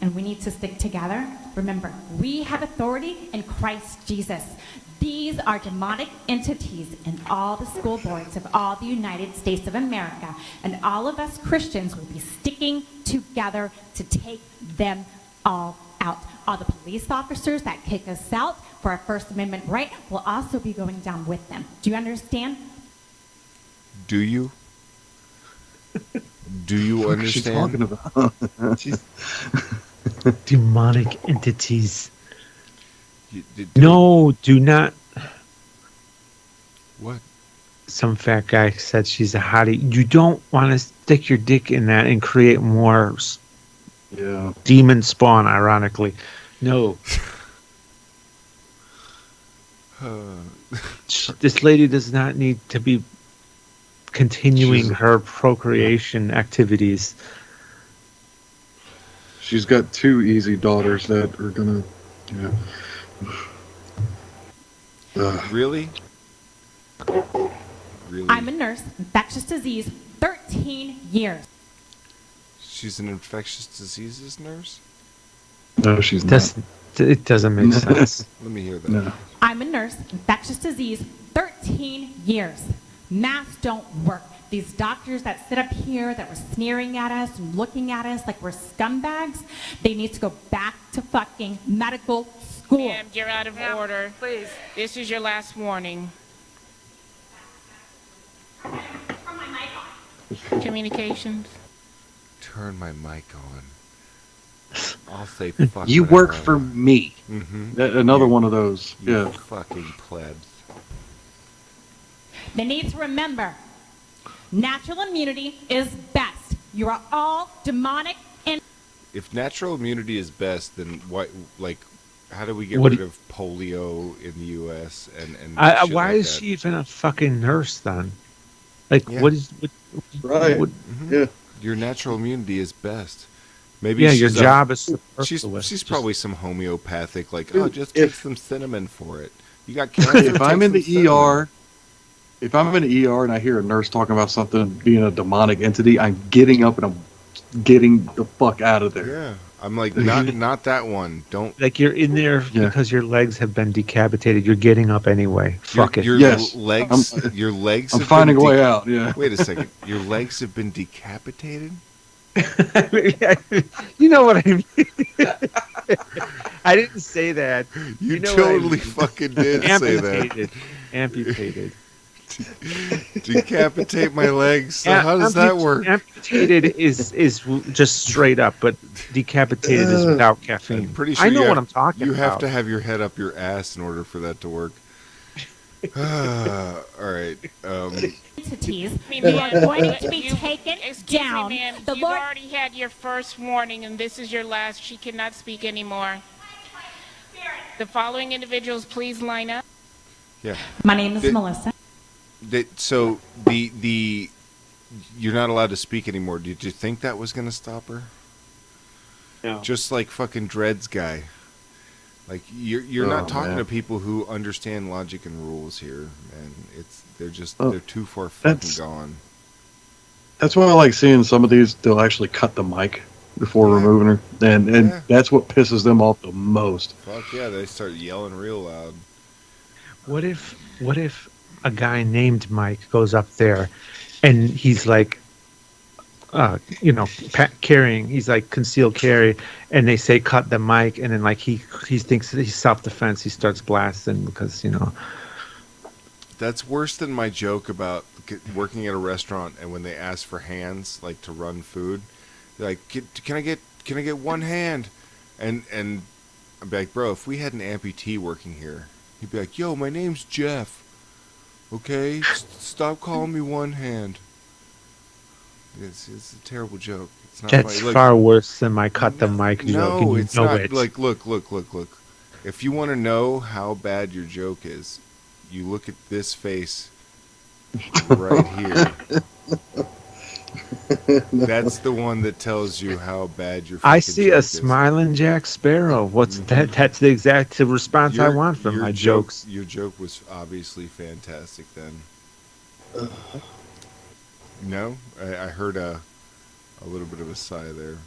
and we need to stick together. Remember, we have authority in Christ Jesus. These are demonic entities in all the school boards of all the United States of America, and all of us Christians will be sticking together to take them all out. All the police officers that kick us out for our First Amendment right will also be going down with them. Do you understand? Do you? Do you understand? She's talking about She's- Demonic entities. you- d- d- No, do not. What? Some fat guy said she's a hottie. You don't want to stick your dick in that and create more s- yeah. demon spawn, ironically. No. Uh, Sh- This lady does not need to be continuing She's a- her procreation activities. She's got two easy daughters that are gonna, you know. Ugh. really? Really? I'm a nurse, infectious disease, 13 years. She's an infectious diseases nurse? no, she's That's, it doesn't make sense. Let me hear that. not. No. I'm a nurse, infectious disease, 13 years. Masks don't work. These doctors that sit up here that were sneering at us and looking at us like we're scumbags, they need to go back to fucking medical school. Ma'am, you're out of Ma'am, order. Please. This is your last warning. Communications. Turn my mic on. I'll say fuck. You whatever work I for want. me. Mm-hmm. Mhm. Another one of those. You Yeah. fucking plebs. They need to remember natural immunity is best. You are all demonic and If natural immunity is best, then why? Like, how do we get What rid do- of polio in the U.S. and and I, I- shit why like is that? she even a fucking nurse then? Like, Yeah. what is. What, Right. Mm-hmm. what- Mhm. Yeah. Your natural immunity is best. Maybe yeah, your she's a- job is. She's superfluous. she's Just- probably some homeopathic. Like, Dude, oh, just if- take some cinnamon for it. You got cancer. if I'm take in the some E cinnamon. ER, if I'm in the ER and I hear a nurse talking about something being a demonic entity, I'm getting up and I'm getting the fuck out of there. yeah, I'm like not not that one. Don't Like you're in there Yeah. because your legs have been decapitated. You're getting up anyway. Fuck it. your, your Yes. legs. your legs. I'm have finding a been de- way out. Yeah. Wait a second. Your legs have been decapitated. you know what I mean. I didn't say that. You, You know what I totally mean. fucking did say that. Amputated. Amputated. Decapitate my legs. So how does that Amput- work? Amputated is is w- just straight up, but decapitated is without caffeine. Uh, I'm pretty sure I you know have- what I'm talking You have about. to have your head up your ass in order for that to work. All right. Um, entities. Excuse me, You are ma'am. going to be You- taken Excuse down. me, ma'am. The You've Lord already had your first warning, and this is your last. She cannot speak anymore. The following individuals, please line up. yeah. My name is Did- Melissa. That so the the you're not allowed to speak anymore. Did you think that was going to stop her? No. Just like fucking Dreads guy. Like you're you're Oh, not talking man. to people who understand logic and rules here, man. It's they're just Oh, they're too far fucking that's- gone. That's why I like seeing some of these. They'll actually cut the mic before Yeah. removing her, and and Yeah. that's what pisses them off the most. Fuck yeah, they start yelling real loud. What if what if a guy named Mike goes up there and he's like uh you know pa- carrying he's like concealed carry and they say cut the mic and then like he he thinks that he's self defense he starts blasting because you know That's worse than my joke about g working at a restaurant and when they ask for hands, like to run food, they're like, "Can- "Can I get can I get one hand?" And and I'm like, "Bro, if we had an amputee working here, he'd be like, "Yo, my name's Jeff. Okay, S- stop calling me one hand." It's it's a terrible joke. It's not that's funny. Look, far worse than my cut the mic joke and no, you it's know not. it. Like, look, look, look, look. If you want to know how bad your joke is, you look at this face right here. That's the one that tells you how bad your. I fucking see joke a is. smiling Jack Sparrow. What's that? That's the exact response I Your- want from your my joke- jokes. Your joke was obviously fantastic. Then. No, I, I heard a, a little bit of a sigh there.